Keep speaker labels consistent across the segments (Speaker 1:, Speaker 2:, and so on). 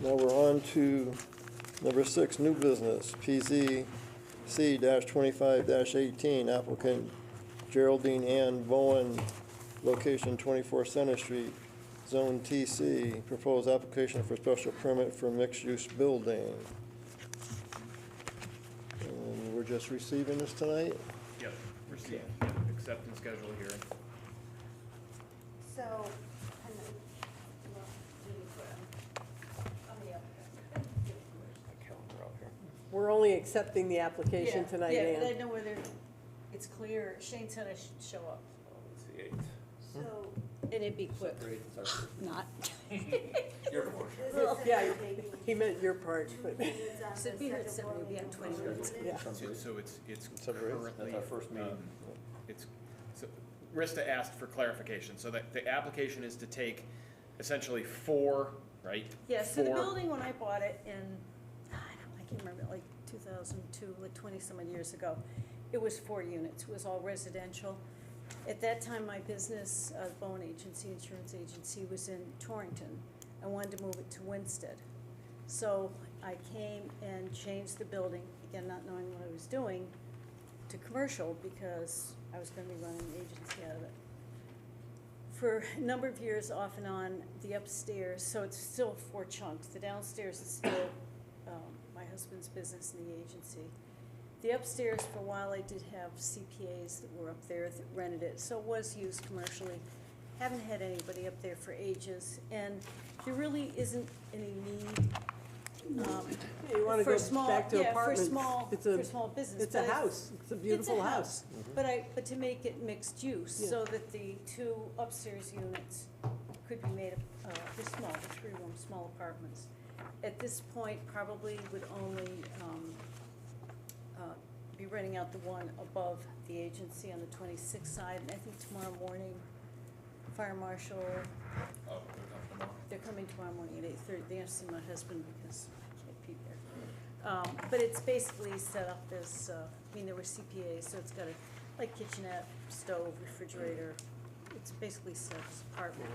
Speaker 1: Now we're on to number six, new business, PZC twenty-five eighteen, applicant Geraldine Ann Bowen, location twenty-four Center Street, Zone TC, proposed application for special permit for mixed-use building. And we're just receiving this tonight?
Speaker 2: Yep, receive, accept and schedule hearing.
Speaker 3: So, and then, well, do we put on- on the other?
Speaker 4: We're only accepting the application tonight,
Speaker 3: Yeah, but I
Speaker 4: Ann.
Speaker 3: know where they're, it's clear, Shane said I should show up. So, and it'd be quick. Not.
Speaker 4: Yeah, he meant your part, but,
Speaker 3: So be here at seven, we'll be at twenty minutes.
Speaker 4: yeah.
Speaker 2: So- So it's, it's
Speaker 1: February eighth?
Speaker 2: currently.
Speaker 5: That's our first meeting.
Speaker 2: um, It's, so, Rista asked for clarification, so that the application is to take essentially four, right?
Speaker 3: Yeah, so the
Speaker 2: Four-
Speaker 3: building, when I bought it in, I don't, I can't remember, like two thousand two, like twenty-some odd years ago, it was four units, it was all residential. At that time, my business, uh, Bowen Agency, Insurance Agency, was in Torrington. I wanted to move it to Winston. So I came and changed the building, again, not knowing what I was doing, to commercial because I was gonna be running an agency out of it for a number of years off and on, the upstairs, so it's still four chunks. The downstairs is still um, my husband's business and the agency. The upstairs, for a while, I did have CPAs that were up there that rented it, so it was used commercially. Haven't had anybody up there for ages, and there really isn't any need um,
Speaker 4: You wanna
Speaker 3: for
Speaker 4: go
Speaker 3: small,
Speaker 4: back to
Speaker 3: yeah, for
Speaker 4: apartments.
Speaker 3: small,
Speaker 4: It's a-
Speaker 3: for small business.
Speaker 4: It's a
Speaker 3: but I-
Speaker 4: house, it's a beautiful house.
Speaker 3: but I, but to make it mixed use,
Speaker 4: Yeah.
Speaker 3: so that the two upstairs units could be made, uh, the small, the three-room, small apartments. At this point, probably would only, um, uh, be renting out the one above the agency on the twenty-sixth side, and I think tomorrow morning, fire marshal,
Speaker 2: Oh, they're coming tomorrow.
Speaker 3: they're coming tomorrow morning at eight thirty, they have to see my husband because I can't be there. Um, but it's basically set up as, uh, I mean, there were CPAs, so it's got a, like kitchenette, stove, refrigerator, it's basically set up as apartment.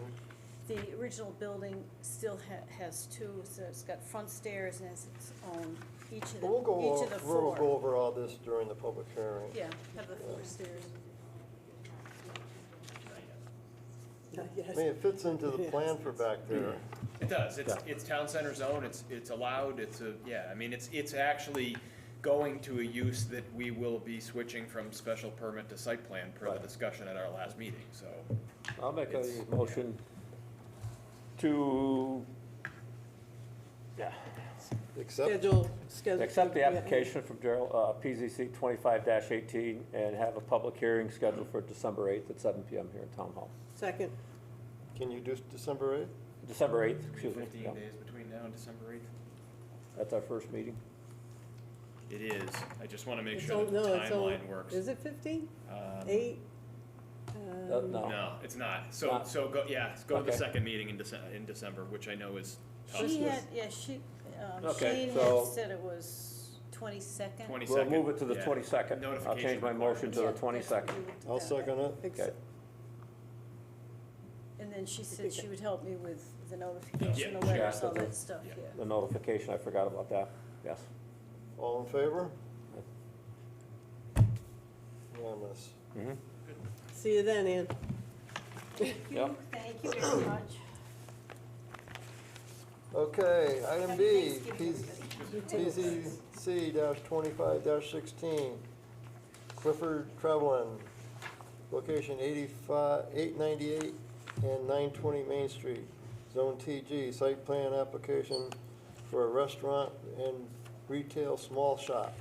Speaker 3: The original building still ha- has two, so it's got front stairs and has its own, each of the,
Speaker 1: We'll go,
Speaker 3: each of the
Speaker 1: over-
Speaker 3: four.
Speaker 1: we'll go over all this during the public hearing.
Speaker 3: Yeah, have the four stairs.
Speaker 1: I
Speaker 4: Yes.
Speaker 1: mean, it fits into the plan for back there.
Speaker 2: It does, it's, it's town center zone, it's, it's allowed, it's a, yeah, I mean, it's, it's actually going to a use that we will be switching from special permit to site plan per the
Speaker 5: Right.
Speaker 2: discussion at our last meeting, so.
Speaker 5: I'll make a
Speaker 2: It's-
Speaker 5: motion to, yeah,
Speaker 1: Except,
Speaker 4: Schedule, schedule.
Speaker 5: accept the
Speaker 4: yeah.
Speaker 5: application from Gerald, uh, PZC twenty-five eighteen and have a public hearing scheduled for December eighth at seven PM here in Town Hall.
Speaker 4: Second,
Speaker 1: can you do December eighth?
Speaker 5: December eighth, excuse me,
Speaker 2: Fifteen
Speaker 5: yeah.
Speaker 2: days between now and December eighth?
Speaker 5: that's our first meeting.
Speaker 2: It is, I just wanna make
Speaker 4: it's
Speaker 2: sure
Speaker 4: all,
Speaker 2: that the
Speaker 4: no, it's all,
Speaker 2: timeline works.
Speaker 4: is it fifteen,
Speaker 2: Um,
Speaker 4: eight?
Speaker 5: Uh,
Speaker 4: Um,
Speaker 5: No,
Speaker 2: No, it's not. So,
Speaker 5: Not.
Speaker 2: so go, yeah, let's go to the
Speaker 5: Okay.
Speaker 2: second meeting in December, in December, which I know is tough.
Speaker 3: She had, yeah, she, um,
Speaker 5: Okay,
Speaker 3: Shane
Speaker 5: so-
Speaker 3: had said it was twenty-second.
Speaker 5: we'll
Speaker 2: Twenty-second.
Speaker 5: move it to the twenty-second. I'll change my motion to the twenty-second.
Speaker 1: I'll second it.
Speaker 4: ex-
Speaker 3: And then she
Speaker 4: think
Speaker 3: said
Speaker 4: that-
Speaker 3: she would help me with the notification,
Speaker 2: Yeah.
Speaker 3: the letters,
Speaker 5: Yeah.
Speaker 3: all that stuff,
Speaker 2: Yeah.
Speaker 3: yeah.
Speaker 5: The notification, I forgot about that, yes.
Speaker 1: All in favor? Unanimous.
Speaker 2: Mm-hmm.
Speaker 5: Mhm.
Speaker 4: See you then, Ann.
Speaker 3: Thank
Speaker 5: Yeah.
Speaker 3: you, thank you very much.
Speaker 1: Okay, item
Speaker 3: Happy
Speaker 1: B,
Speaker 3: Thanksgiving, everybody.
Speaker 1: PZC twenty-five sixteen, Clifford Trevlin, location eighty-five, eight ninety-eight and nine twenty Main Street, Zone TG, site plan application for a restaurant and retail small shop.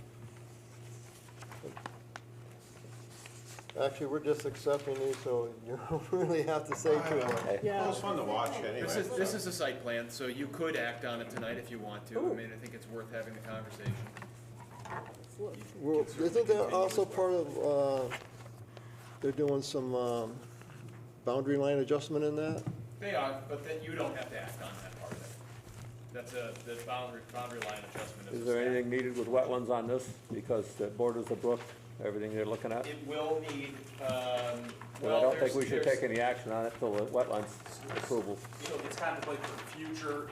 Speaker 1: Actually, we're just accepting these, so you don't really have to say too much.
Speaker 4: Yeah.
Speaker 6: Well, it's fun to watch anyway.
Speaker 2: This is, this is a site plan, so you could act on it tonight if you want to. I
Speaker 4: Ooh.
Speaker 2: mean, I think it's worth having the conversation.
Speaker 4: Let's look.
Speaker 1: Well, isn't that also part of, uh, they're doing some um, boundary line adjustment in that?
Speaker 2: They are, but then you don't have to act on that part of it. That's a, the boundary, boundary line adjustment is.
Speaker 5: Is
Speaker 2: a
Speaker 5: there
Speaker 2: step.
Speaker 5: anything needed with wetlands on this? Because it borders the brook, everything they're looking at.
Speaker 2: It will need, um,
Speaker 5: And
Speaker 2: well,
Speaker 5: I don't think
Speaker 2: there's-
Speaker 5: we should
Speaker 2: there's-
Speaker 5: take any action on it till the wetlands approval.
Speaker 2: So it's contemplated for future